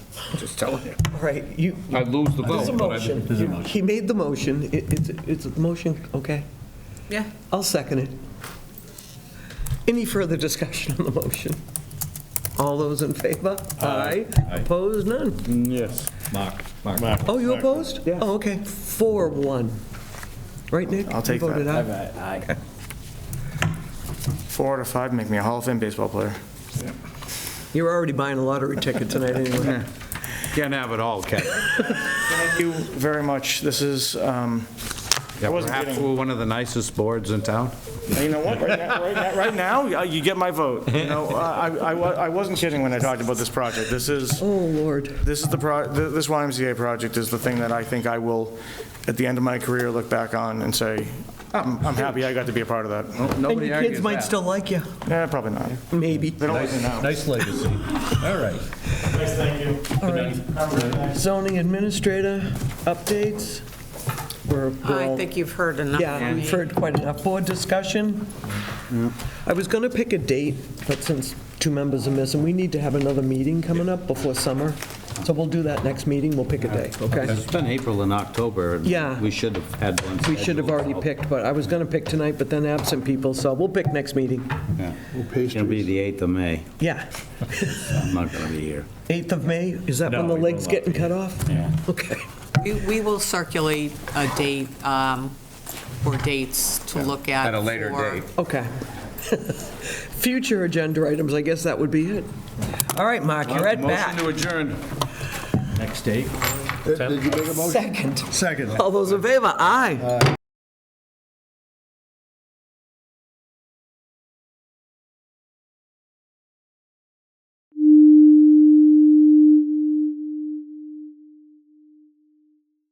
Just telling you. All right, you, I'd lose the there's a vote, but I'd motion. You- He made the motion. It- It's, it's a motion, okay? Yeah. I'll second it. Any further discussion on the motion? All those in favor? Aye. Opposed? None. Yes. Mark, Mark. Oh, you opposed? Yeah. Oh, okay. Four, one. Right, Nick? I'll take You voted that. aye. Four out of five make me a Hall of Fame baseball player. You're already buying a lottery ticket tonight anyway. Can't have it all, Ken. Thank you very much. This is, um, Yeah, wasn't Perhaps kidding. we're one of the nicest boards in town. you know what, right now, right now- right now, uh, you get my vote. You know, I, I- I wa- I wasn't kidding when I talked about this project. This is, Oh, Lord. this is the, pro- th- this YMCA project is the thing that I think I will, at the end of my career, look back on and say, I'm I'm happy I got to be a part of that. Oh. And your kids might still like you, Yeah, probably not. maybe. They don't really know. Nice legacy. All right. Nice, thank you. All right. Zoning administrator updates? We're we're I all think you've heard enough Yeah, from we've me. heard quite enough. Board discussion? I was going to pick a date, but since two members are missing, we need to have another meeting coming up before summer. So we'll do that next meeting, we'll pick a day, okay? It's been April and October. and Yeah. We should have had one. We should have already scheduled. picked, but I was going to pick tonight, but then absent people, so we'll pick next meeting. Yeah. It'll be the 8th of May. Yeah. I'm not going to be here. 8th of May, is that when the leg's getting cut off? Yeah. Okay. We- We will circulate a date um, or dates to look at. at a later for- date. Okay. Future agenda items, I guess that would be it. All right, Mark, you're at Motion bat. to adjourn. Next date. Second. Second. All those in favor? Aye.